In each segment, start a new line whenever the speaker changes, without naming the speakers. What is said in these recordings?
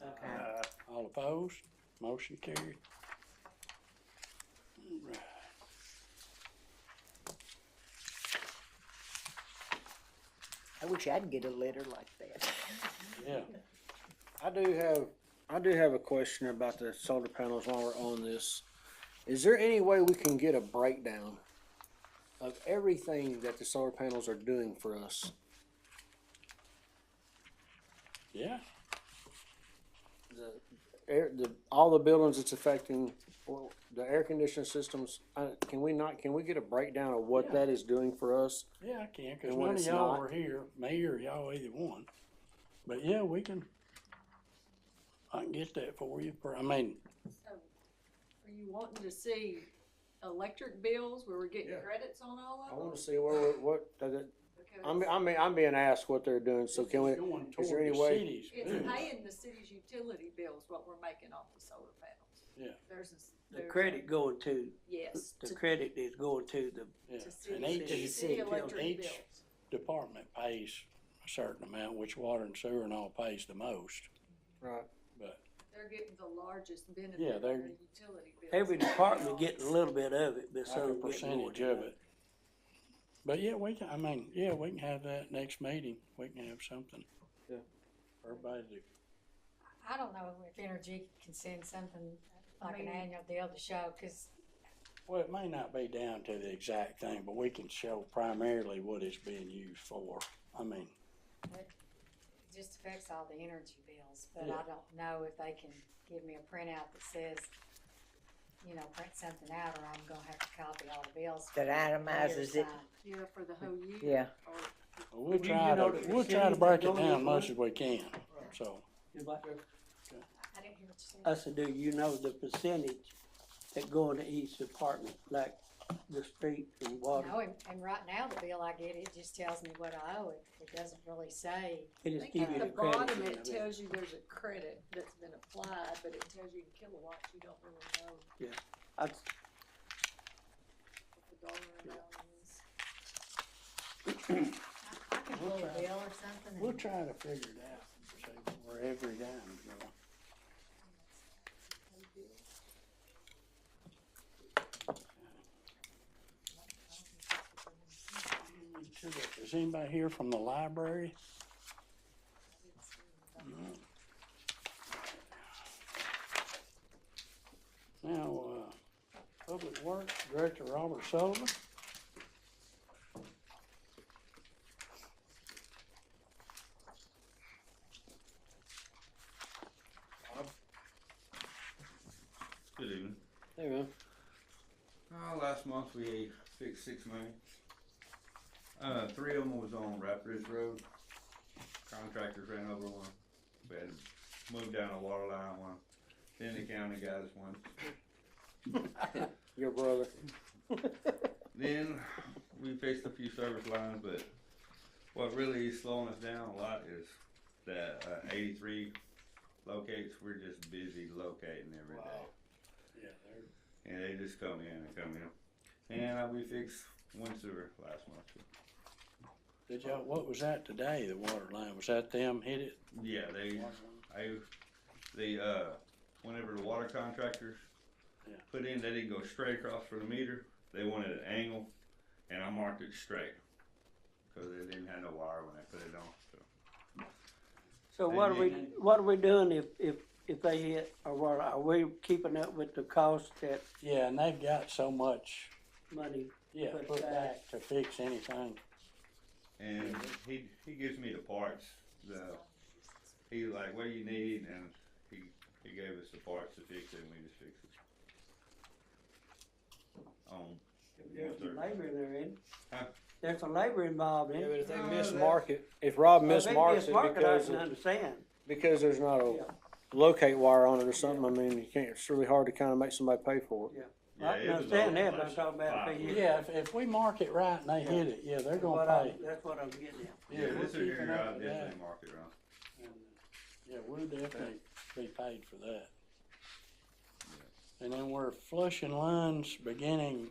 Okay.
Uh,
All opposed? Motion carried. Alright.
I wish I'd get a letter like that.
Yeah,
I do have, I do have a question about the solar panels while we're on this. Is there any way we can get a breakdown of everything that the solar panels are doing for us?
yeah.
The, air, the, all the buildings it's affecting, or the air conditioning systems, uh, can we not, can we get a breakdown of what
Yeah.
that is doing for us?
Yeah, I can, cause
And when
none of
it's
y'all
not-
were here, me or y'all, either one. But yeah, we can, I can get that for you, for- I mean,
So, Are you wanting to see electric bills where we're getting
Yeah.
credits on all
I
of them?
wanna see where, we're- what, I'm,
Because
I'm, I'm being asked what they're doing, so can we,
it's going
is there
toward
any
the
way-
cities,
it's
Mm.
too.
paying the city's utility bills, what we're making off the solar panels.
Yeah.
There's, a s-
The
there's a-
credit going to,
Yes,
the
to,
credit is going to the
Yeah.
to
And
city,
each-
to
each-
city electric
each-
bills.
department pays a certain amount, which water and sewer and all pays the most.
right,
But
They're getting the largest benefit
Yeah,
on
they're-
their utility bills.
Every department getting a little bit of it,
like
but
a
so.
percentage of it. But yeah, we can, I mean, yeah, we can have that next meeting, we can have something.
Yeah.
Everybody to
I don't know if Energy can send something like an
Maybe.
annual deal to show, cause
Well, it may not be down to the exact thing, but we can show primarily what it's being used for. I mean,
it just affects all the energy bills, but
Yeah.
I don't know if they can give me a printout that says, you know, print something out, or I'm gonna have to copy all the bills.
That itemizes it.
Yeah, for the whole year.
Yeah.
Or
we'll
Do you
try
know
to,
the
we'll try to break it
percentage
down as
going
much as we can, so.
I didn't hear what you said.
I said, do you know the percentage that going to each department, like the street and water?
No, and, and right now, the bill I get, it just tells me what I owe, it, it doesn't really say,
I
It is
think
give you
at
the
the bottom, it
credit.
tells you there's a credit that's been applied, but it tells you in kilowatts, you don't really know
I-
what the dollar amount is.
I, I can pull a bill or something. and-
We'll try to figure it out, see where every dime is going. Is anybody here from the library? Mm. Now, uh, Public Works Director Robert Sullivan.
Good evening.
there you go.
Uh, last month we fixed six main. Uh, three of them was on Rapid Ridge Road. Contractors ran over one. We had to move down a water line one. Then the county got us one.
Your brother.
Then we fixed a few service lines, but what really is slowing us down a lot is that uh, 83 locates. We're just busy locating every day.
Yeah, there
And they just come in and come in. And uh, we fixed one sewer last month.
Did y'all, what was that today, the water line? Was that them hit it?
Yeah, they I, they, uh, whenever the water contractors
Yeah.
put in, they didn't go straight across from the meter, they wanted an angle, and I marked it straight. Cause they didn't have no wire when I put it on, so.
So what are we, what are we doing if, if, if they hit, or what, are we keeping up with the cost that
Yeah, and they've got so much,
money?
yeah,
Put it
put back
back.
to fix anything.
And he, he gives me the parts, the, he was like, what do you need, and he, he gave us the parts to fix it, and we just fixed it. Um,
There's some labor there in.
Huh?
There's some labor involved in.
Yeah, but
it.
if they
No,
miss
that-
market, if Rob
Well, if
miss
they
marks it
mismark it, I
because,
can
of- Oh.
understand.
because there's not a
Yeah.
locate wire on it or something, I mean, you can't, it's really hard to kinda make somebody pay for it.
yeah,
I
it
can
was
understand
all
that, but I'm
like
talking about if
five
they hit.
Yeah, if, if we mark it right and they hit it, yeah, they're
What
gonna
I'm-
pay.
That's what I'm getting at.
Yeah,
we're
this is
keeping
your,
up
I
with that.
definitely mark it wrong.
Yeah, we'll definitely be paid for that. And then we're flushing lines beginning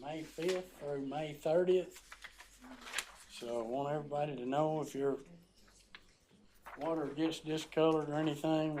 May fifth through May thirtieth. So I want everybody to know if you're water gets discolored or anything,